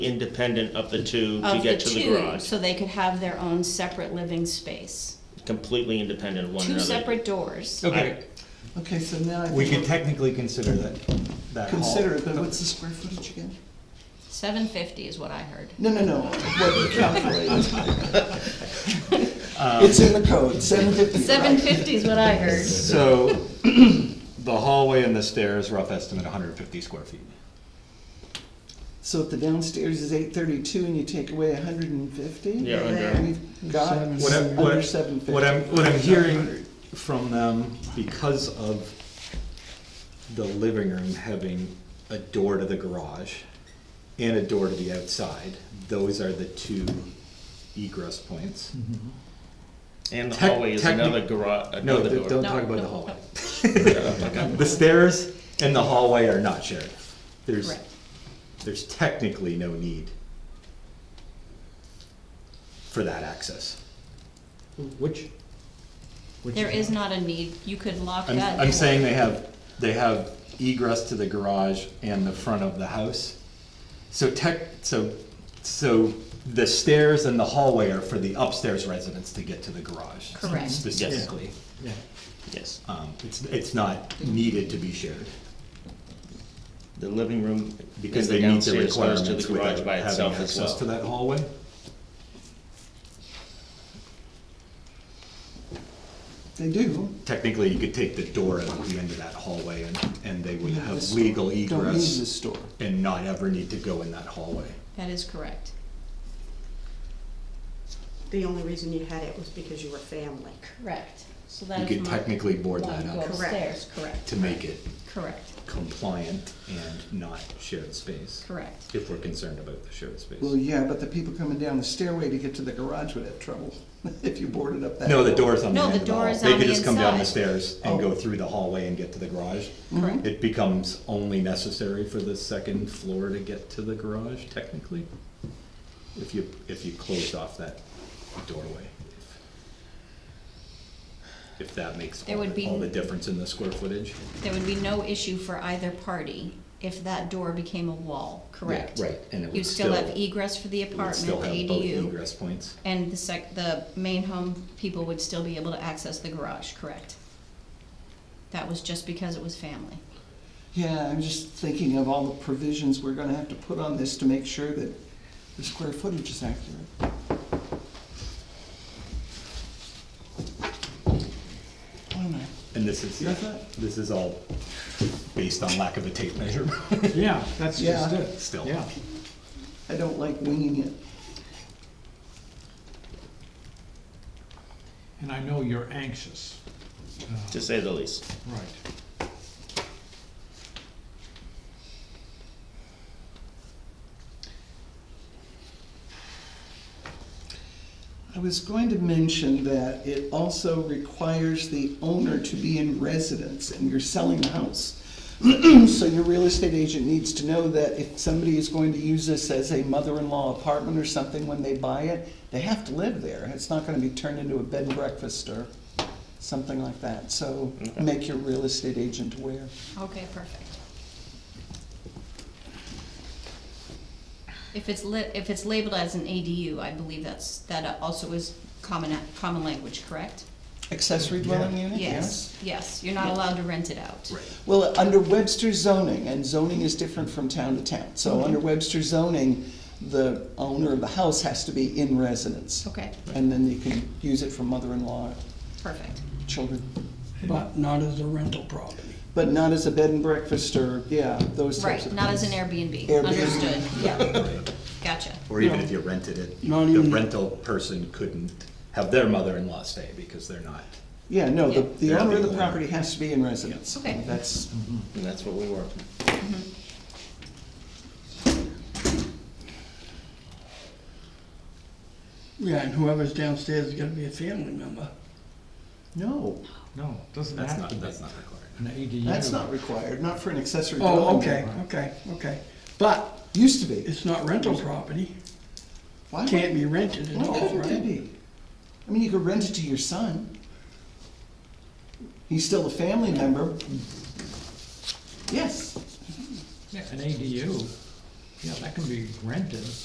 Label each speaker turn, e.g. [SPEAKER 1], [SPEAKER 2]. [SPEAKER 1] independent of the two to
[SPEAKER 2] of the
[SPEAKER 1] get to the
[SPEAKER 2] two,
[SPEAKER 1] garage.
[SPEAKER 2] so they could have their own separate living space.
[SPEAKER 1] Completely independent of one
[SPEAKER 2] Two
[SPEAKER 1] another.
[SPEAKER 2] separate doors.
[SPEAKER 3] Okay,
[SPEAKER 4] Okay, so now I think.
[SPEAKER 5] We could
[SPEAKER 4] we'll
[SPEAKER 5] technically consider that, that hall.
[SPEAKER 4] Consider it, but what's the square footage again?
[SPEAKER 2] Seven fifty is what I heard.
[SPEAKER 4] No, no, no, what you calculate.
[SPEAKER 5] Um,
[SPEAKER 4] It's in the code, seven fifty.
[SPEAKER 2] Seven fifty is what I heard.
[SPEAKER 5] So, the hallway and the stairs, rough estimate, hundred and fifty square feet.
[SPEAKER 4] So if the downstairs is eight thirty-two and you take away hundred and fifty?
[SPEAKER 1] Yeah, under.
[SPEAKER 4] We've got
[SPEAKER 5] What I'm,
[SPEAKER 4] under
[SPEAKER 5] what,
[SPEAKER 4] seven fifty.
[SPEAKER 5] what I'm, what I'm hearing from them, because of the living room having a door to the garage and a door to the outside, those are the two egress points.
[SPEAKER 1] And the
[SPEAKER 5] Tec-
[SPEAKER 1] hallway is
[SPEAKER 5] technic-
[SPEAKER 1] another garage,
[SPEAKER 5] No,
[SPEAKER 1] another
[SPEAKER 5] th-
[SPEAKER 1] door.
[SPEAKER 5] don't talk
[SPEAKER 2] No,
[SPEAKER 5] about the
[SPEAKER 2] no,
[SPEAKER 5] hallway. The stairs and the hallway are not shared. There's,
[SPEAKER 2] Correct.
[SPEAKER 5] there's technically no need for that access.
[SPEAKER 3] which? which-
[SPEAKER 2] There is not a need, you could lock
[SPEAKER 5] I'm,
[SPEAKER 2] that.
[SPEAKER 5] I'm
[SPEAKER 2] door.
[SPEAKER 5] saying they have, they have egress to the garage and the front of the house. So tech, so, so the stairs and the hallway are for the upstairs residents to get to the garage.
[SPEAKER 2] Correct. Yes.
[SPEAKER 5] Specifically.
[SPEAKER 3] Yeah.
[SPEAKER 1] Yes.
[SPEAKER 5] Um, it's, it's not needed to be shared.
[SPEAKER 1] The living room,
[SPEAKER 5] Because
[SPEAKER 1] because
[SPEAKER 5] they
[SPEAKER 1] the
[SPEAKER 5] meet the
[SPEAKER 1] downstairs goes
[SPEAKER 5] requirements
[SPEAKER 1] to the garage
[SPEAKER 5] without
[SPEAKER 1] by
[SPEAKER 5] having
[SPEAKER 1] itself as
[SPEAKER 5] access to
[SPEAKER 1] well.
[SPEAKER 5] that hallway.
[SPEAKER 4] They do.
[SPEAKER 5] Technically, you could take the door out at the end of that hallway and, and they would have
[SPEAKER 4] This
[SPEAKER 5] legal
[SPEAKER 4] store. Don't need this
[SPEAKER 5] egress
[SPEAKER 4] store.
[SPEAKER 5] and not ever need to go in that hallway.
[SPEAKER 2] That is correct.
[SPEAKER 6] The only reason you had it was because you were family.
[SPEAKER 2] Correct. So that
[SPEAKER 5] You
[SPEAKER 2] is
[SPEAKER 5] could
[SPEAKER 2] my-
[SPEAKER 5] technically board that
[SPEAKER 2] One
[SPEAKER 5] up
[SPEAKER 2] goes
[SPEAKER 6] Correct.
[SPEAKER 2] stairs, correct,
[SPEAKER 5] to make it
[SPEAKER 2] correct,
[SPEAKER 5] compliant and not shared space.
[SPEAKER 2] correct.
[SPEAKER 5] If we're concerned about the shared space.
[SPEAKER 4] Well, yeah, but the people coming down the stairway to get to the garage would have trouble if you boarded up that.
[SPEAKER 5] No, the door's on the
[SPEAKER 2] No,
[SPEAKER 5] end
[SPEAKER 2] the
[SPEAKER 5] of the
[SPEAKER 2] door
[SPEAKER 5] hall.
[SPEAKER 2] is
[SPEAKER 5] They
[SPEAKER 2] on
[SPEAKER 5] could
[SPEAKER 2] the
[SPEAKER 5] just come down the
[SPEAKER 2] inside.
[SPEAKER 5] stairs and go
[SPEAKER 4] Oh.
[SPEAKER 5] through the hallway and get to the garage.
[SPEAKER 2] Correct.
[SPEAKER 5] It becomes only necessary for the second floor to get to the garage technically, if you, if you closed off that doorway. If that makes
[SPEAKER 2] There
[SPEAKER 5] all
[SPEAKER 2] would
[SPEAKER 5] the- all
[SPEAKER 2] be-
[SPEAKER 5] the difference in the square footage.
[SPEAKER 2] There would be no issue for either party if that door became a wall, correct?
[SPEAKER 5] right, and it
[SPEAKER 2] You
[SPEAKER 5] would
[SPEAKER 2] still have
[SPEAKER 5] still-
[SPEAKER 2] egress for the
[SPEAKER 5] It would still
[SPEAKER 2] apartment, the
[SPEAKER 5] have both
[SPEAKER 2] ADU,
[SPEAKER 5] egress points.
[SPEAKER 2] and the sec, the main home people would still be able to access the garage, correct? That was just because it was family.
[SPEAKER 4] Yeah, I'm just thinking of all the provisions we're gonna have to put on this to make sure that the square footage is accurate. Wait a minute.
[SPEAKER 5] And this is,
[SPEAKER 4] Your thought?
[SPEAKER 5] this is all based on lack of a tape measure.
[SPEAKER 3] Yeah, that's just
[SPEAKER 4] Yeah.
[SPEAKER 3] it.
[SPEAKER 5] Still.
[SPEAKER 3] Yeah.
[SPEAKER 4] I don't like winging it.
[SPEAKER 3] And I know you're anxious.
[SPEAKER 1] To say the least.
[SPEAKER 3] Right.
[SPEAKER 4] I was going to mention that it also requires the owner to be in residence and you're selling a house. So your real estate agent needs to know that if somebody is going to use this as a mother-in-law apartment or something when they buy it, they have to live there. It's not gonna be turned into a bed and breakfast or something like that. So make your real estate agent aware.
[SPEAKER 2] Okay, perfect. If it's lit, if it's labeled as an ADU, I believe that's, that also is common, common language, correct?
[SPEAKER 4] Accessory dwelling unit,
[SPEAKER 2] Yes, yes, you're not allowed to rent it out.
[SPEAKER 5] Right.
[SPEAKER 4] Well, under Webster zoning, and zoning is different from town to town, so under Webster zoning, the owner of the house has to be in residence.
[SPEAKER 2] Okay,
[SPEAKER 4] And then you can use it for mother-in-law,
[SPEAKER 2] perfect.
[SPEAKER 4] children,
[SPEAKER 7] But not as a rental property.
[SPEAKER 4] but not as a bed and breakfast or, yeah, those types
[SPEAKER 2] Right,
[SPEAKER 4] of things.
[SPEAKER 2] not as an Airbnb,
[SPEAKER 4] Airbnb.
[SPEAKER 2] understood, yeah,
[SPEAKER 5] Right.
[SPEAKER 2] gotcha.
[SPEAKER 5] Or even if you rented it,
[SPEAKER 7] Not
[SPEAKER 5] the
[SPEAKER 7] even-
[SPEAKER 5] rental person couldn't have their mother-in-law stay because they're not.
[SPEAKER 4] Yeah, no, the,
[SPEAKER 2] Yeah.
[SPEAKER 4] the
[SPEAKER 5] They're
[SPEAKER 4] owner
[SPEAKER 5] the
[SPEAKER 4] of the
[SPEAKER 5] owner.
[SPEAKER 4] property has to be in residence.
[SPEAKER 2] Okay.
[SPEAKER 4] That's,
[SPEAKER 1] And that's what we were.
[SPEAKER 7] Yeah, and whoever's downstairs is gonna be a family member.
[SPEAKER 4] no,
[SPEAKER 3] No, doesn't
[SPEAKER 5] That's
[SPEAKER 3] have
[SPEAKER 5] not,
[SPEAKER 3] to be.
[SPEAKER 5] that's not required.
[SPEAKER 3] An ADU.
[SPEAKER 4] that's not required, not for an accessory dwelling.
[SPEAKER 7] Oh,
[SPEAKER 4] unit.
[SPEAKER 7] okay, okay, okay. But
[SPEAKER 4] Used to be.
[SPEAKER 7] it's not rental property,
[SPEAKER 4] Why would-
[SPEAKER 7] can't be rented at
[SPEAKER 4] Why
[SPEAKER 7] all,
[SPEAKER 4] couldn't it
[SPEAKER 7] right?
[SPEAKER 4] be? I mean, you could rent it to your son. He's still a family member. Yes,
[SPEAKER 3] Yeah, An ADU Yeah, that can be rented.